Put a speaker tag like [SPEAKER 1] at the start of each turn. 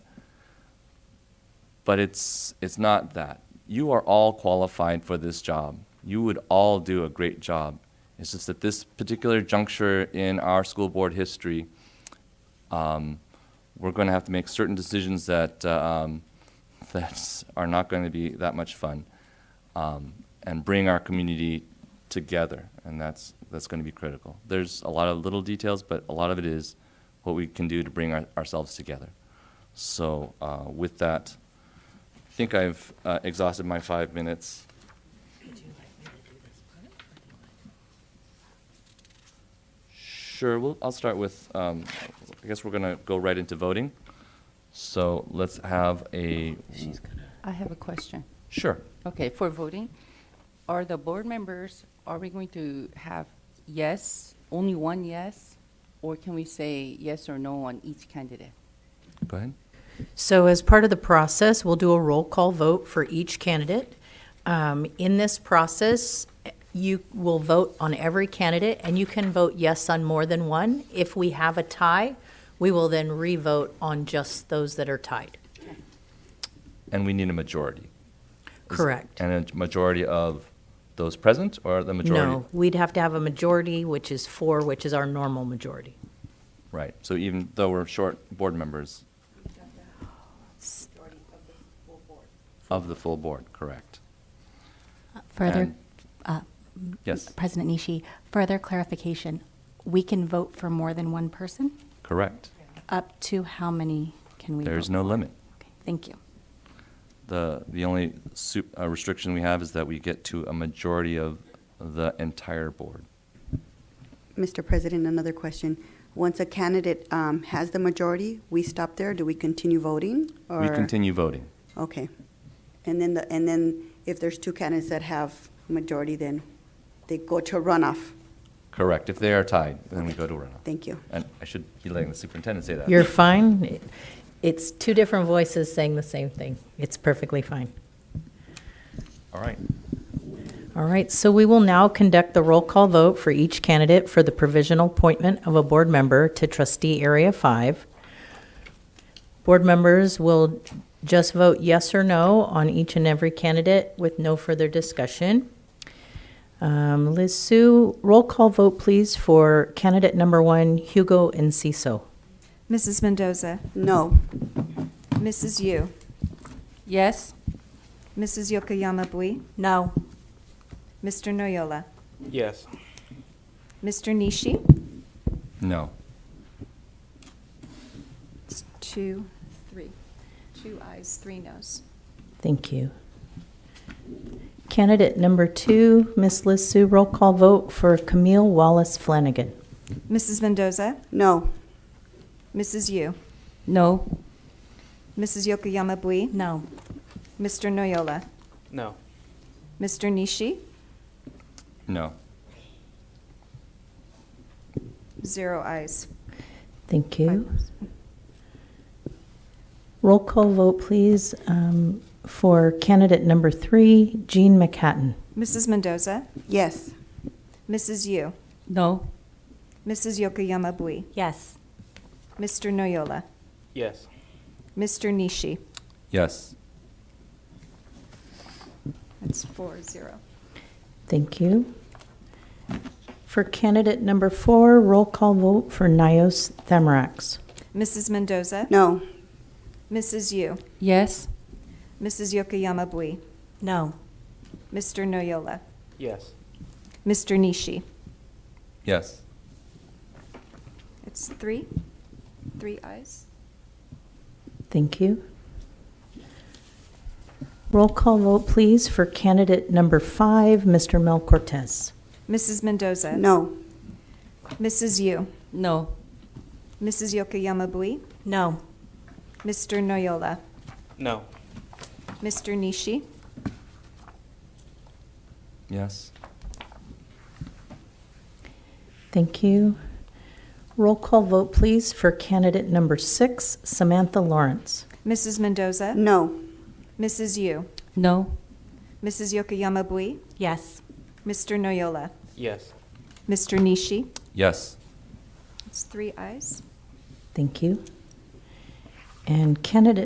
[SPEAKER 1] but it's it's not that. You are all qualified for this job. You would all do a great job. It's just at this particular juncture in our school board history, um, we're going to have to make certain decisions that uh, um, that are not going to be that much fun, um, and bring our community together. And that's that's going to be critical. There's a lot of little details, but a lot of it is what we can do to bring our, ourselves together. So uh, with that. I think I've uh, exhausted my five minutes. Sure, well, I'll start with, um, I guess we're going to go right into voting. So let's have a,
[SPEAKER 2] I have a question.
[SPEAKER 1] sure.
[SPEAKER 2] Okay, for voting, are the board members, are we going to have yes, only one yes? Or can we say yes or no on each candidate?
[SPEAKER 1] Go ahead.
[SPEAKER 3] So as part of the process, we'll do a roll call vote for each candidate. Um, In this process, you will vote on every candidate, and you can vote yes on more than one. If we have a tie, we will then re-vote on just those that are tied.
[SPEAKER 1] And we need a majority. Is-
[SPEAKER 3] Correct.
[SPEAKER 1] And a majority of those present or the majority?
[SPEAKER 3] No, we'd have to have a majority, which is four, which is our normal majority.
[SPEAKER 1] Right, so even though we're short board members. Of the full board, correct.
[SPEAKER 4] Further, Uh,
[SPEAKER 1] And- Yes,
[SPEAKER 4] President Nishi, further clarification, we can vote for more than one person?
[SPEAKER 1] correct.
[SPEAKER 4] Up to how many can we vote?
[SPEAKER 1] There's no limit.
[SPEAKER 4] Okay, Thank you.
[SPEAKER 1] The, the only su- uh, restriction we have is that we get to a majority of the entire board.
[SPEAKER 5] Mr. President, another question. Once a candidate um, has the majority, we stop there? Do we continue voting?
[SPEAKER 1] We
[SPEAKER 5] or-
[SPEAKER 1] continue voting.
[SPEAKER 5] Okay. And then, the and then if there's two candidates that have majority, then they go to runoff?
[SPEAKER 1] Correct. If they are tied, then we go to runoff.
[SPEAKER 5] Thank you.
[SPEAKER 1] And I should be letting the superintendent say that.
[SPEAKER 3] You're fine. It- It's two different voices saying the same thing. It's perfectly fine.
[SPEAKER 1] All right.
[SPEAKER 3] All right, so we will now conduct the roll call vote for each candidate for the provisional appointment of a board member to trustee Area 5. Board members will just vote yes or no on each and every candidate with no further discussion. Um, Liz Sue, roll call vote, please, for candidate number one, Hugo Enciso.
[SPEAKER 6] Mrs. Mendoza,
[SPEAKER 5] No.
[SPEAKER 6] Mrs. Yu,
[SPEAKER 2] Yes?
[SPEAKER 6] Mrs. Yokoyama Bui,
[SPEAKER 3] No.
[SPEAKER 6] Mr. Noyola,
[SPEAKER 7] Yes.
[SPEAKER 6] Mr. Nishi,
[SPEAKER 1] No.
[SPEAKER 6] It's two, three, two ayes, three noes.
[SPEAKER 3] Thank you. Candidate number two, Miss Liz Sue, roll call vote for Camille Wallace Flanagan.
[SPEAKER 6] Mrs. Mendoza,
[SPEAKER 5] No.
[SPEAKER 6] Mrs. Yu,
[SPEAKER 2] No.
[SPEAKER 6] Mrs. Yokoyama Bui,
[SPEAKER 3] No.
[SPEAKER 6] Mr. Noyola,
[SPEAKER 7] No.
[SPEAKER 6] Mr. Nishi,
[SPEAKER 1] No.
[SPEAKER 6] zero ayes.
[SPEAKER 3] Thank
[SPEAKER 6] five
[SPEAKER 3] you.
[SPEAKER 6] noes.
[SPEAKER 3] Roll call vote, please, um, for candidate number three, Jean McHatton.
[SPEAKER 6] Mrs. Mendoza,
[SPEAKER 5] Yes.
[SPEAKER 6] Mrs. Yu,
[SPEAKER 2] No.
[SPEAKER 6] Mrs. Yokoyama Bui,
[SPEAKER 3] Yes.
[SPEAKER 6] Mr. Noyola,
[SPEAKER 7] Yes.
[SPEAKER 6] Mr. Nishi.
[SPEAKER 1] Yes.
[SPEAKER 6] That's four, zero.
[SPEAKER 3] Thank you. For candidate number four, roll call vote for Nios Themarax.
[SPEAKER 6] Mrs. Mendoza,
[SPEAKER 5] No.
[SPEAKER 6] Mrs. Yu,
[SPEAKER 2] Yes?
[SPEAKER 6] Mrs. Yokoyama Bui,
[SPEAKER 3] No.
[SPEAKER 6] Mr. Noyola,
[SPEAKER 7] Yes.
[SPEAKER 6] Mr. Nishi.
[SPEAKER 1] Yes.
[SPEAKER 6] It's three, three eyes.
[SPEAKER 3] Thank you. Roll call vote, please, for candidate number five, Mr. Mel Cortez.
[SPEAKER 6] Mrs. Mendoza.
[SPEAKER 5] No.
[SPEAKER 6] Mrs. Yu.
[SPEAKER 2] No.
[SPEAKER 6] Mrs. Yokoyama Bui.
[SPEAKER 3] No.
[SPEAKER 6] Mr. Noyola.
[SPEAKER 7] No.
[SPEAKER 6] Mr. Nishi.
[SPEAKER 1] Yes.
[SPEAKER 3] Thank you. Roll call vote, please, for candidate number six, Samantha Lawrence.
[SPEAKER 6] Mrs. Mendoza.
[SPEAKER 5] No.
[SPEAKER 6] Mrs. Yu.
[SPEAKER 2] No.
[SPEAKER 6] Mrs. Yokoyama Bui.
[SPEAKER 3] Yes.
[SPEAKER 6] Mr. Noyola.
[SPEAKER 7] Yes.
[SPEAKER 6] Mr. Nishi.
[SPEAKER 1] Yes.
[SPEAKER 6] It's three eyes.
[SPEAKER 3] Thank you. And candidate